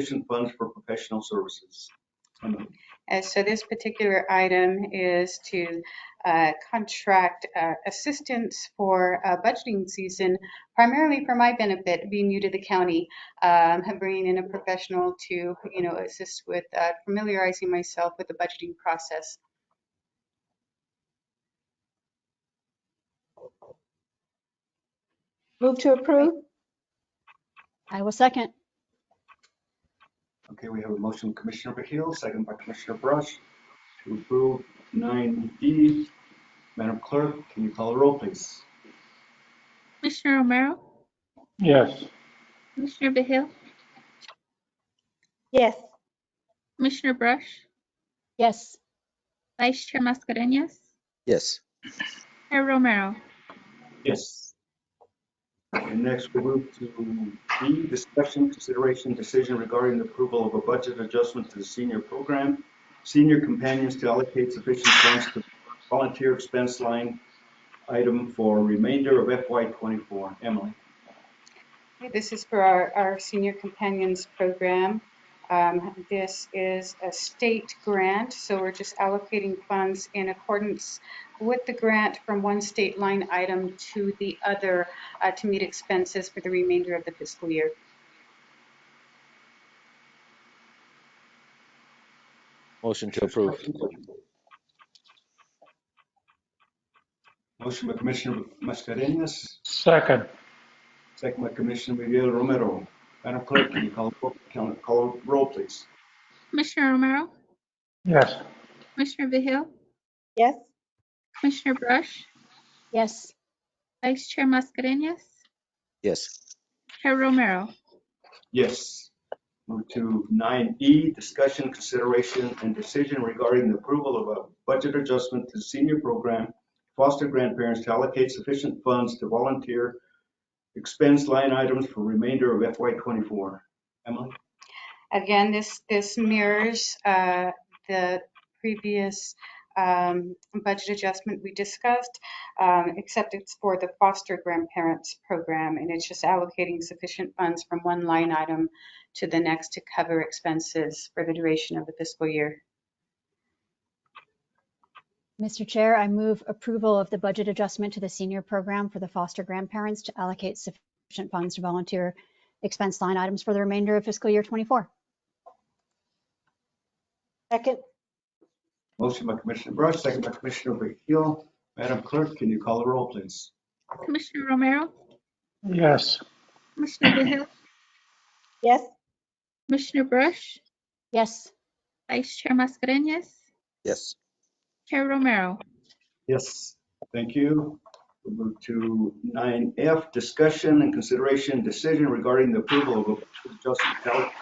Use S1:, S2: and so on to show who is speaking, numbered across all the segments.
S1: sufficient funds for professional services. So moved.
S2: And so this particular item is to uh, contract uh, assistance for uh, budgeting season, primarily for my benefit, being new to the county, um, and bringing in a professional to, you know, assist with uh, familiarizing myself with the budgeting process.
S3: Move to approve? I will second.
S1: Okay, we have a motion, Commissioner Vehil, second by Commissioner Brush, to approve nine D. Madam Clerk, can you call the roll, please?
S4: Commissioner Romero,
S5: yes,
S4: Commissioner Behill,
S3: Yes.
S4: Commissioner Brush,
S3: Yes.
S4: Vice Chair Mascarenhas,
S6: yes,
S4: Chair Romero,
S1: Yes. And next, we move to D, discussion, consideration, decision regarding the approval of a budget adjustment to the senior program. Senior companions to allocate sufficient funds to volunteer expense line item for remainder of FY twenty-four. Emily?
S2: This is for our, our senior companions program. Um, This is a state grant, so we're just allocating funds in accordance with the grant from one state line item to the other uh, to meet expenses for the remainder of the fiscal year.
S6: motion to approve,
S1: Motion by Commissioner Mascarenhas,
S5: second,
S1: second by Commissioner Miguel Romero. Madam Clerk, can you call, call- call roll, please?
S4: Commissioner Romero,
S5: yes,
S4: Commissioner Behill,
S3: Yes.
S4: Commissioner Brush,
S3: Yes.
S4: Vice Chair Mascarenhas,
S6: yes,
S4: Chair Romero,
S1: Yes. Move to nine E, discussion, consideration, and decision regarding the approval of a budget adjustment to senior program, foster grandparents to allocate sufficient funds to volunteer expense line items for remainder of FY twenty-four. Emily?
S2: Again, this, this mirrors uh, the previous um, budget adjustment we discussed, um, except it's for the foster grandparents program, and it's just allocating sufficient funds from one line item to the next to cover expenses for the duration of the fiscal year.
S7: Mr. Chair, I move approval of the budget adjustment to the senior program for the foster grandparents to allocate sufficient funds to volunteer expense line items for the remainder of fiscal year 24.
S3: Second?
S1: Motion by Commissioner Brush, second by Commissioner Beal. Madam Clerk, can you call the roll, please?
S4: Commissioner Romero,
S5: yes,
S4: Commissioner Behill,
S3: Yes.
S4: Commissioner Brush,
S7: Yes,
S4: Vice Chair Mascarenhas,
S6: yes,
S4: Chair Romero,
S1: Yes. Thank you. We move to nine F, discussion and consideration decision regarding the approval of a adjustment to allocate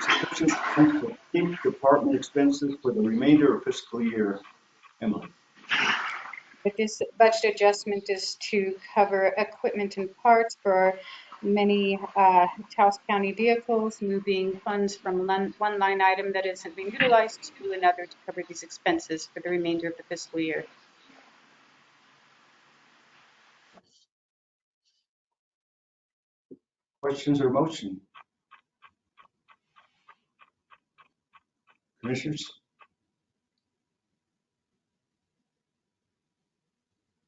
S1: sufficient funds for each department expenses for the remainder of fiscal year. Emily?
S2: But this budget adjustment is to cover equipment and parts for many uh, Taos County vehicles, moving funds from lon- one line item that isn't being utilized to another to cover these expenses for the remainder of the fiscal year.
S1: Questions or motion? Commissioners?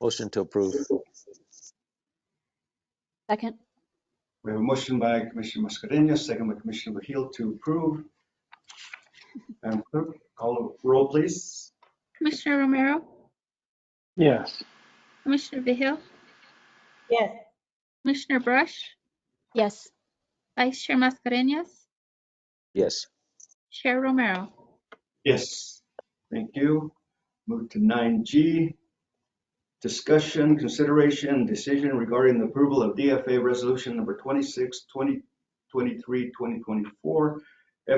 S6: motion to approve,
S7: second,
S1: We have a motion by Commissioner Mascarenhas, second by Commissioner Mejia to approve. Madam Clerk, call the roll, please.
S4: Commissioner Romero,
S5: yes,
S4: Commissioner Behill,
S3: Yes.
S4: Commissioner Brush,
S7: yes,
S4: Vice Chair Mascarenhas,
S6: yes,
S4: Chair Romero,
S1: Yes. Thank you. Move to nine G. Discussion, consideration, and decision regarding the approval of DFA Resolution Number 26, 2023, 2024,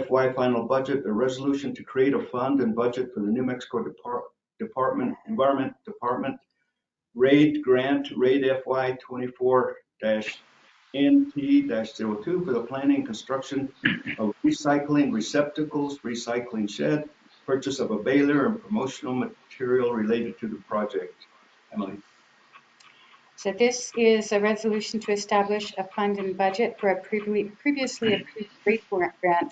S1: FY Final Budget, a resolution to create a fund and budget for the New Mexico Depart- Department, Environment Department, RAID Grant, RAID FY 24-NT-02 for the planning and construction of recycling receptacles, recycling shed, purchase of a baler and promotional material related to the project. Emily,
S2: So this is a resolution to establish a fund and budget for a previously previously approved rate grant